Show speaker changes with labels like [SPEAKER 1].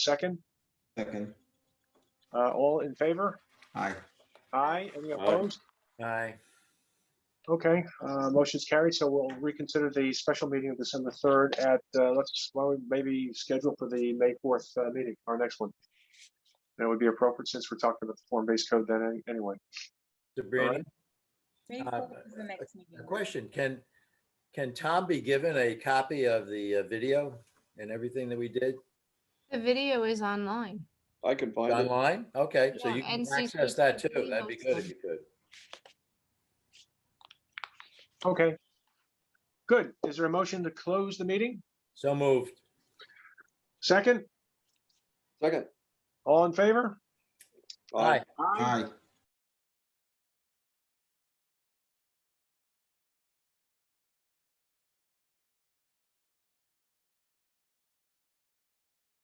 [SPEAKER 1] second?
[SPEAKER 2] Second.
[SPEAKER 1] Uh, all in favor?
[SPEAKER 2] Aye.
[SPEAKER 1] Aye. Any
[SPEAKER 3] Aye.
[SPEAKER 1] opposed?
[SPEAKER 3] Aye.
[SPEAKER 1] Okay, uh, motion's carried, so we'll reconsider the special meeting of December third at, uh, let's, why don't we maybe schedule for the May fourth, uh, meeting, our next one. That would be appropriate since we're talking about the form-based code then any- anyway.
[SPEAKER 3] So Brandon,
[SPEAKER 4] May
[SPEAKER 3] Uh,
[SPEAKER 4] 4th is the next
[SPEAKER 3] a
[SPEAKER 4] meeting.
[SPEAKER 3] question, can, can Tom be given a copy of the uh, video and everything that we did
[SPEAKER 5] The video is online.
[SPEAKER 6] I can find it.
[SPEAKER 3] online? Okay, so
[SPEAKER 5] Yeah,
[SPEAKER 3] you can
[SPEAKER 5] NCC
[SPEAKER 3] access that too.
[SPEAKER 5] completely
[SPEAKER 3] That'd be
[SPEAKER 5] hosts
[SPEAKER 3] good if
[SPEAKER 5] them.
[SPEAKER 3] you could.
[SPEAKER 1] Okay. Good. Is there a motion to close the meeting?
[SPEAKER 3] So moved.
[SPEAKER 1] Second,
[SPEAKER 6] Second.
[SPEAKER 1] all in favor?
[SPEAKER 3] Aye.
[SPEAKER 1] Aye.
[SPEAKER 2] Aye.